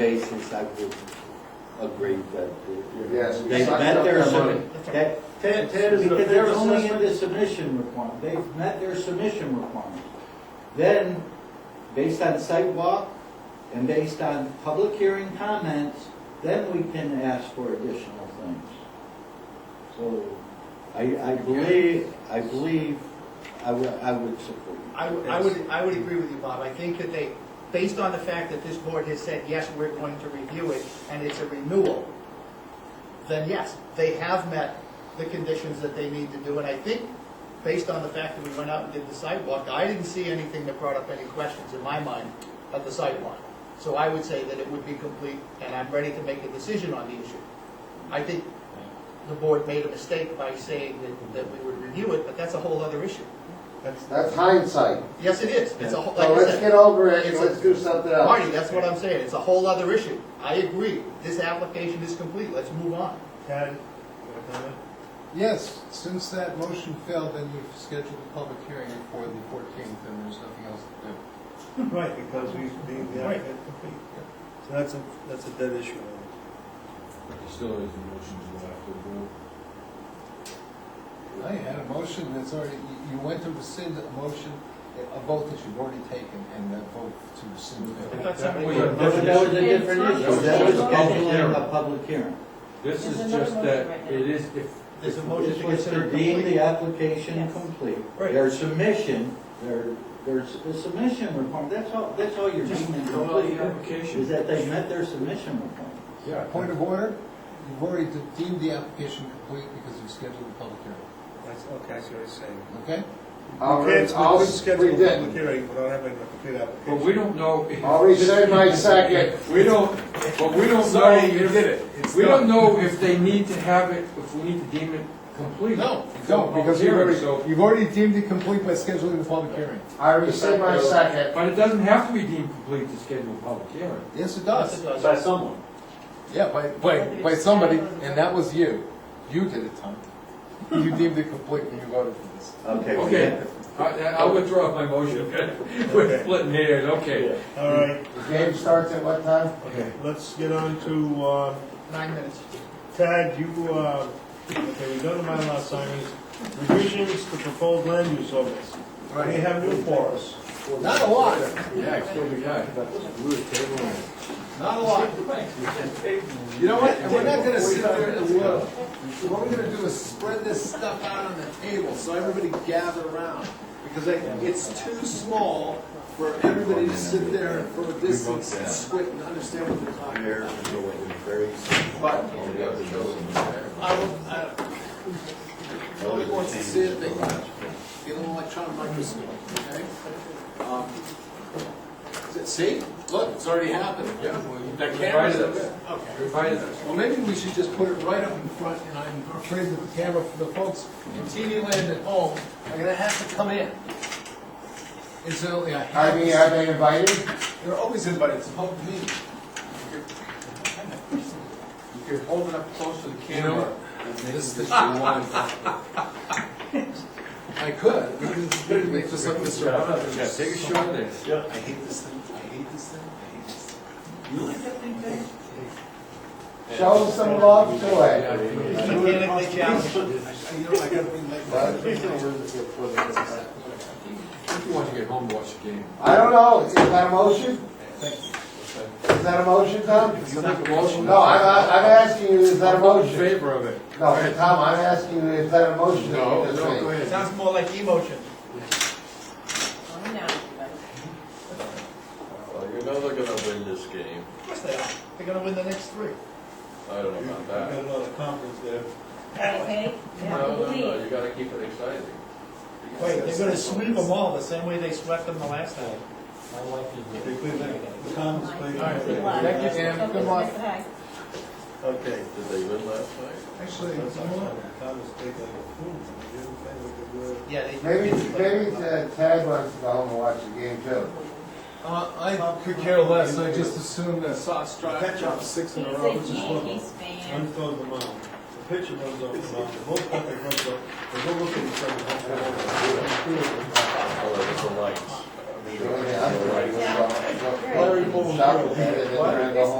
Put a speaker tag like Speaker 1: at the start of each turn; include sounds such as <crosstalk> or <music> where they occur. Speaker 1: basis, I would agree that. uh,
Speaker 2: Yes, we
Speaker 1: They
Speaker 2: sucked
Speaker 1: met
Speaker 2: up
Speaker 1: their
Speaker 2: the money.
Speaker 1: limit. That-
Speaker 3: Ted, Ted is,
Speaker 4: Because
Speaker 3: their
Speaker 4: it's only in the
Speaker 3: assessment,
Speaker 4: submission requirement, they've met their submission requirement. Then, based on sidewalk and based on public hearing comments, then we can ask for additional things. So,
Speaker 1: I, I believe, I believe, I would, I would support you.
Speaker 5: I would, I would, I would agree with you, Bob. I think that they, based on the fact that this board has said, yes, we're going to review it, and it's a renewal, then yes, they have met the conditions that they need to do, and I think, based on the fact that we went out and did the sidewalk, I didn't see anything that brought up any questions in my mind of the sidewalk. So I would say that it would be complete, and I'm ready to make a decision on the issue. I think the board made a mistake by saying that, that we would review it, but that's a whole other issue. That's,
Speaker 2: That's hindsight.
Speaker 5: Yes, it is. It's a whole, like
Speaker 2: So Oh,
Speaker 5: I
Speaker 2: let's
Speaker 5: said,
Speaker 2: get over it and
Speaker 5: It's
Speaker 2: let's do something else.
Speaker 5: Marty, that's what I'm saying. It's a whole other issue. I agree. This application is complete. Let's move on.
Speaker 3: Ted, you have a comment?
Speaker 6: Yes, since that motion failed, then you've scheduled a public hearing for the fourteenth, and there's nothing else to do.
Speaker 3: <laughs> Right, because we, we, we have
Speaker 5: Right.
Speaker 3: it complete. So that's a, that's a dead issue.
Speaker 7: Still is a motion to go after the vote.
Speaker 6: I had a motion that's already, you- you went to rescind a motion, a vote that you've already taken, and that vote to rescind.
Speaker 5: I
Speaker 6: failed.
Speaker 5: thought somebody-
Speaker 7: Well, yeah.
Speaker 4: that was that was a different issue, that was
Speaker 7: Public hearing.
Speaker 4: scheduling a public hearing.
Speaker 7: This
Speaker 8: There's
Speaker 7: is
Speaker 8: another
Speaker 7: just
Speaker 8: motion
Speaker 7: that,
Speaker 8: right now.
Speaker 7: it is, if,
Speaker 5: There's a motion
Speaker 4: This
Speaker 5: to
Speaker 4: was
Speaker 5: consider
Speaker 4: to deem the
Speaker 5: complete.
Speaker 4: application
Speaker 8: Yes.
Speaker 4: complete.
Speaker 5: Right.
Speaker 4: Their submission, their, their s- the submission requirement, that's all, that's all you're deeming complete, is that they met their submission requirement.
Speaker 6: Yeah, point of order, you've already de- deemed the application complete because you've scheduled a public hearing,
Speaker 3: That's, okay, I see what you're saying.
Speaker 6: okay?
Speaker 2: I'll
Speaker 3: We
Speaker 2: re-
Speaker 3: can't,
Speaker 2: I'll,
Speaker 3: we
Speaker 2: we
Speaker 3: can schedule a public
Speaker 2: did.
Speaker 3: hearing, we don't have a complete application.
Speaker 7: but we don't <laughs> know. if-
Speaker 2: I'll rescind my second.
Speaker 7: We don't, but we don't know,
Speaker 3: Sorry, you did it. It's
Speaker 7: we
Speaker 3: done.
Speaker 7: don't know if they need to have it, if we need to deem it complete.
Speaker 5: No.
Speaker 6: No, because you've already,
Speaker 7: So,
Speaker 6: you've already deemed it complete by scheduling the public hearing.
Speaker 2: I rescind my second.
Speaker 7: but it doesn't have to be deemed complete to schedule a public hearing.
Speaker 6: Yes, it
Speaker 5: Yes,
Speaker 6: does.
Speaker 5: it does.
Speaker 1: someone.
Speaker 6: Yeah, by, by, by somebody, and that was you. You did it, Tom. You deemed it complete when you voted for this.
Speaker 4: Okay. we
Speaker 7: Okay,
Speaker 4: have-
Speaker 7: I, I'll withdraw my motion. We're splitting hairs, okay.
Speaker 3: All right,
Speaker 2: The game starts at what time?
Speaker 3: okay, let's get on to, uh,
Speaker 5: Nine minutes.
Speaker 3: Tad, you, uh, okay, we go to Mylar signings, revisions to proposed land use ordinance. We have new for us.
Speaker 6: Not a lot,
Speaker 7: Yeah, I still be guy.
Speaker 6: not a lot. You know what, we're not gonna sit there and look. What we're gonna do is spread this stuff out on the table, so everybody gather around. Because I- it's too small for everybody to sit there and for a distance and squint and understand what they're talking about. I don't, I don't. Nobody wants to see it, they can get an electron microscope, okay? Um, See, look, it's already happened. Yeah. That camera's up there. Okay. Well, maybe we should just put it right up in front, and I'm afraid that the camera, for the folks in TV land at home, are gonna have to come in. Incidentally, I
Speaker 2: Are
Speaker 6: have,
Speaker 2: they, are they invited?
Speaker 6: they're always invited, it's a public meeting. You can hold it up close to the camera. This is the I could, It's just like Mr. Rogers.
Speaker 7: Yeah, take a shot at this.
Speaker 6: I hate this thing, I hate this thing, I hate this thing. You like that thing, Dave?
Speaker 2: Show some love to it.
Speaker 5: Mechanically challenged.
Speaker 6: I- You know, I gotta be like.
Speaker 2: But-
Speaker 7: You want to get home, and watch the game.
Speaker 2: I don't know, is that a motion? Is that a motion, Tom?
Speaker 7: You make a motion?
Speaker 2: No, I'm, I'm asking you, is that a
Speaker 7: All in
Speaker 2: motion?
Speaker 7: favor of it.
Speaker 2: No, Tom, I'm asking you, is that a motion?
Speaker 7: No, no, go
Speaker 5: It
Speaker 7: ahead.
Speaker 5: Sounds more like emotion.
Speaker 8: Calm down, everybody.
Speaker 9: Well, you know they're gonna win this game.
Speaker 5: Of course they are. They're gonna win the next three.
Speaker 9: I don't
Speaker 3: We've
Speaker 9: know about
Speaker 3: got
Speaker 9: that.
Speaker 3: a lot of conference there.
Speaker 8: Okay?
Speaker 9: No, no,
Speaker 8: Believe.
Speaker 9: no, you gotta keep it exciting.
Speaker 5: Wait, they're gonna sweep them all the same way they swept them the last time.
Speaker 3: They played that- the conference played that.
Speaker 8: Good luck.
Speaker 6: Thank you, Dan.
Speaker 8: Focus,
Speaker 6: Good luck.
Speaker 8: Hi.
Speaker 3: Okay.
Speaker 9: Did they win last night?
Speaker 6: Actually,
Speaker 3: Conference
Speaker 6: you know what?
Speaker 3: played like a fool. They didn't play like they were.
Speaker 5: Yeah, they.
Speaker 2: Maybe, maybe uh, Tad wants to go home and watch the game too.
Speaker 6: Uh, I could care less, I just assumed that Sox
Speaker 3: Catch
Speaker 6: drive
Speaker 3: up.
Speaker 6: dropped six in
Speaker 8: He's
Speaker 6: a row.
Speaker 8: a Yankees
Speaker 3: One
Speaker 8: fan.
Speaker 3: throws them out. The pitcher runs off the mound. The whole country runs up. They go look at each other. hop all over.
Speaker 9: Oh, it was the lights.
Speaker 2: Yeah.
Speaker 8: Yeah.
Speaker 2: Larry Moore. Stop it, and then we're gonna go home.